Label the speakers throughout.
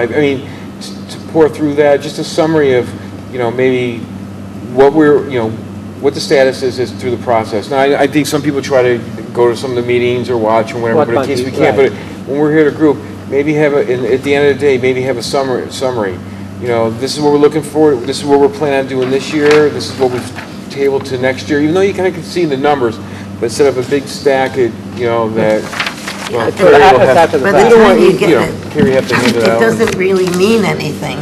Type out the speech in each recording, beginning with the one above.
Speaker 1: I I mean, t- to pour through that, just a summary of, you know, maybe what we're, you know, what the status is, is through the process. Now, I I think some people try to go to some of the meetings or watch or whatever,
Speaker 2: What
Speaker 1: but in case we
Speaker 2: monkeys,
Speaker 1: can't, but
Speaker 2: right.
Speaker 1: when we're here to group, maybe have, a in- at the end of the day, maybe have a summary, summary. You know, this is what we're looking for, this is what we're planning on doing this year, this is what we've tabled to next year, even though you kind of can see the numbers, but set up a big stack, it- you know, that, well,
Speaker 2: Throw
Speaker 1: Carrie
Speaker 2: it
Speaker 1: will
Speaker 2: out- it's
Speaker 1: have
Speaker 2: out
Speaker 1: to-
Speaker 2: to the
Speaker 1: we
Speaker 2: By the
Speaker 1: don't
Speaker 3: time
Speaker 1: want,
Speaker 3: you
Speaker 1: you
Speaker 3: get
Speaker 1: know,
Speaker 3: it-
Speaker 1: Carrie have to hand it
Speaker 3: It
Speaker 1: out.
Speaker 3: doesn't really mean anything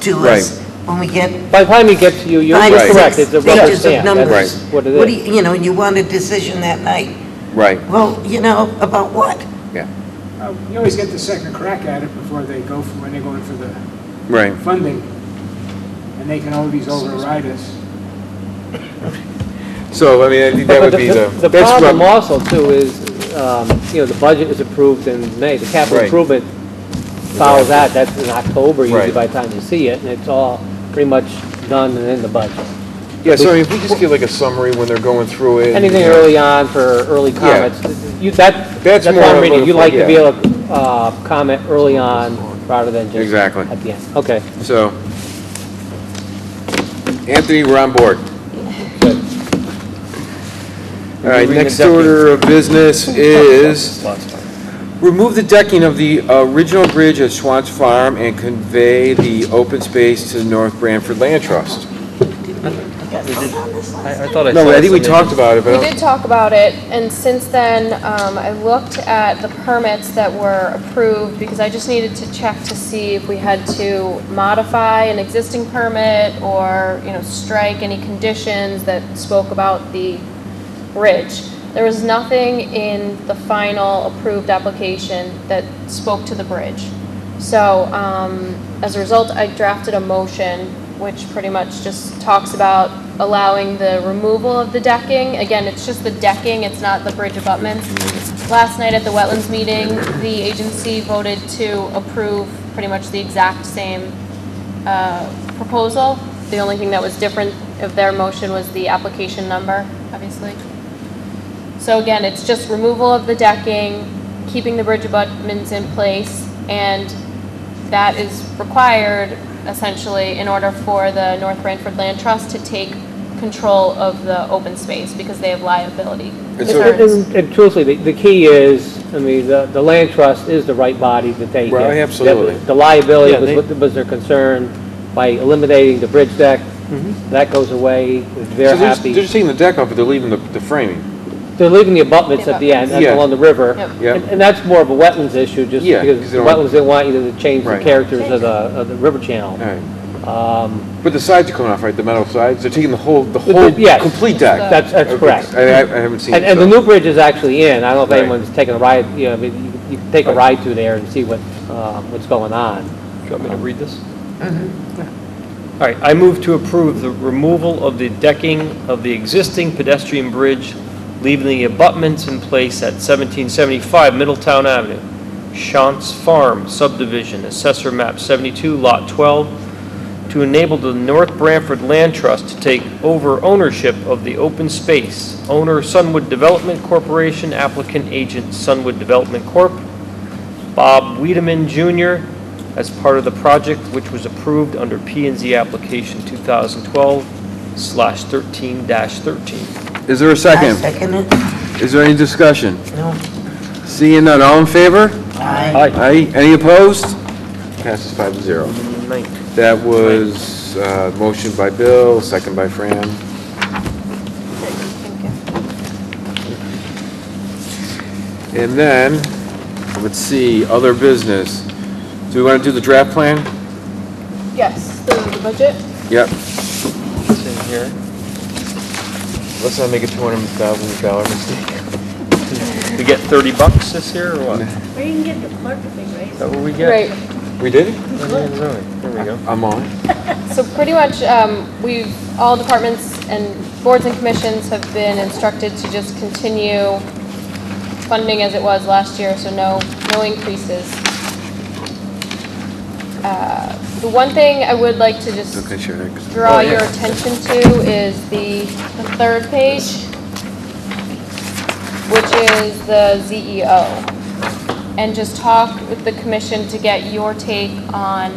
Speaker 3: to us when we get
Speaker 2: By the time you get to, you- you're
Speaker 3: five or
Speaker 2: you're correct,
Speaker 3: six
Speaker 2: it's a rubber
Speaker 3: pages of
Speaker 2: stamp, that's
Speaker 3: numbers.
Speaker 2: what it
Speaker 3: What do
Speaker 2: is.
Speaker 3: you, you know, and you want a decision that night.
Speaker 1: Right,
Speaker 3: Well, you know, about what?
Speaker 1: yeah,
Speaker 4: Uh, You always get the second crack at it before they go for, when they're going for the
Speaker 1: right.
Speaker 4: funding, and they can always override us.
Speaker 1: So, I mean, I think that
Speaker 2: But
Speaker 1: would
Speaker 2: the-
Speaker 1: be the.
Speaker 2: The
Speaker 1: that's what-
Speaker 2: problem also too is, um, you know, the budget is approved in May, the capital
Speaker 1: Right.
Speaker 2: improvement follows that, that's in October usually
Speaker 1: Right.
Speaker 2: by the time you see it, and it's all pretty much done and in the budget.
Speaker 1: Yeah, so I mean, if we just give like a summary when they're going through it. uh,
Speaker 2: Anything
Speaker 1: you know,
Speaker 2: early on for early comments, you, that,
Speaker 1: That's
Speaker 2: that's what
Speaker 1: more
Speaker 2: I'm
Speaker 1: of
Speaker 2: reading,
Speaker 1: a-
Speaker 2: you like to be
Speaker 1: yeah.
Speaker 2: able to, uh, comment early on rather than just
Speaker 1: Exactly.
Speaker 2: at the end, okay.
Speaker 1: So, Anthony, we're on board.
Speaker 2: Good.
Speaker 1: All right,
Speaker 5: Removing the
Speaker 1: next
Speaker 5: decking.
Speaker 1: order of business is remove the decking of the original bridge at Schwantz Farm and convey the open space to the North Branford Land Trust.
Speaker 5: I, I thought I saw.
Speaker 1: No, I think we
Speaker 5: something.
Speaker 1: talked about it, but I
Speaker 6: We
Speaker 1: don't-
Speaker 6: did talk about it, and since then, um, I looked at the permits that were approved, because I just needed to check to see if we had to modify an existing permit, or, you know, strike any conditions that spoke about the bridge. There was nothing in the final approved application that spoke to the bridge. So, um, as a result, I drafted a motion which pretty much just talks about allowing the removal of the decking. Again, it's just the decking, it's not the bridge abutments. Last night at the wetlands meeting, the agency voted to approve pretty much the exact same uh, proposal. The only thing that was different of their motion was the application number, obviously. So again, it's just removal of the decking, keeping the bridge abutments in place, and that is required essentially in order for the North Branford Land Trust to take control of the open space because they have liability
Speaker 1: And so-
Speaker 6: concerns.
Speaker 2: And truthfully, the- the key is, I mean, the the land trust is the right body to take it.
Speaker 1: Right, absolutely.
Speaker 2: The liability
Speaker 5: Yeah,
Speaker 2: was
Speaker 5: they-
Speaker 2: what- was their concern by eliminating the bridge deck. That goes away,
Speaker 1: Mm-hmm. So
Speaker 2: they're
Speaker 1: they're just- They're
Speaker 2: happy.
Speaker 1: just taking the deck off, but they're leaving the, the framing.
Speaker 2: They're leaving the abutments at the end, that's
Speaker 1: Yeah.
Speaker 2: along the river.
Speaker 6: Yep.
Speaker 1: Yep.
Speaker 2: And- And that's more of a wetlands issue, just
Speaker 1: Yeah,
Speaker 2: because
Speaker 1: 'cause they
Speaker 2: the
Speaker 1: don't-
Speaker 2: wetlands didn't want you to change the
Speaker 1: Right.
Speaker 2: characters of the, of the river channel. Um,
Speaker 1: All right. But the sides are coming off, right? The metal sides? They're taking the whole, the
Speaker 2: the-
Speaker 1: whole,
Speaker 2: yes.
Speaker 1: complete deck?
Speaker 2: That's, that's
Speaker 1: Okay,
Speaker 2: correct.
Speaker 1: I, I I haven't seen it.
Speaker 2: And, and the
Speaker 1: so-
Speaker 2: new bridge is actually in, I don't know
Speaker 1: Right.
Speaker 2: if anyone's taken a ride, you know, I mean, you- you can take a ride through there and see what, um, what's going on.
Speaker 5: Do you want me to read this? All right, I move to approve the removal of the decking of the existing pedestrian bridge, leaving the abutments in place at 1775 Middletown Avenue, Shantz Farm subdivision, Assessor Map 72, Lot 12, to enable the North Branford Land Trust to take over ownership of the open space. Owner Sunwood Development Corporation, applicant agent Sunwood Development Corp., Bob Wiedemann Jr. as part of the project which was approved under p and Z application 2012/13-13.
Speaker 1: Is there a
Speaker 3: I
Speaker 1: second?
Speaker 3: second it.
Speaker 1: Is there any discussion?
Speaker 3: No,
Speaker 1: Seeing none, all in favor?
Speaker 3: I,
Speaker 1: Aye. Any opposed? Passes five to zero. That was, uh, motion by Bill, second by Fran. And then, let's see, other business. Do we want to do the draft plan?
Speaker 6: Yes, the the budget.
Speaker 1: Yep.
Speaker 5: It's in here.
Speaker 1: Let's not make a two hundred thousand dollar mistake.
Speaker 5: We get 30 bucks this year or what? Is
Speaker 7: Or you can get the clerk a big raise.
Speaker 5: that what we get?
Speaker 6: Right.
Speaker 1: We did?
Speaker 5: There we go.
Speaker 1: I'm on it.
Speaker 6: So pretty much, um, we've, all departments and boards and commissions have been instructed to just continue funding as it was last year, so no, no increases. Uh, The one thing I would like to just
Speaker 1: Okay, sure. 'cause-
Speaker 6: draw your attention to is the, the third E page, which is the ZEO. and just talk with the commission to get your take on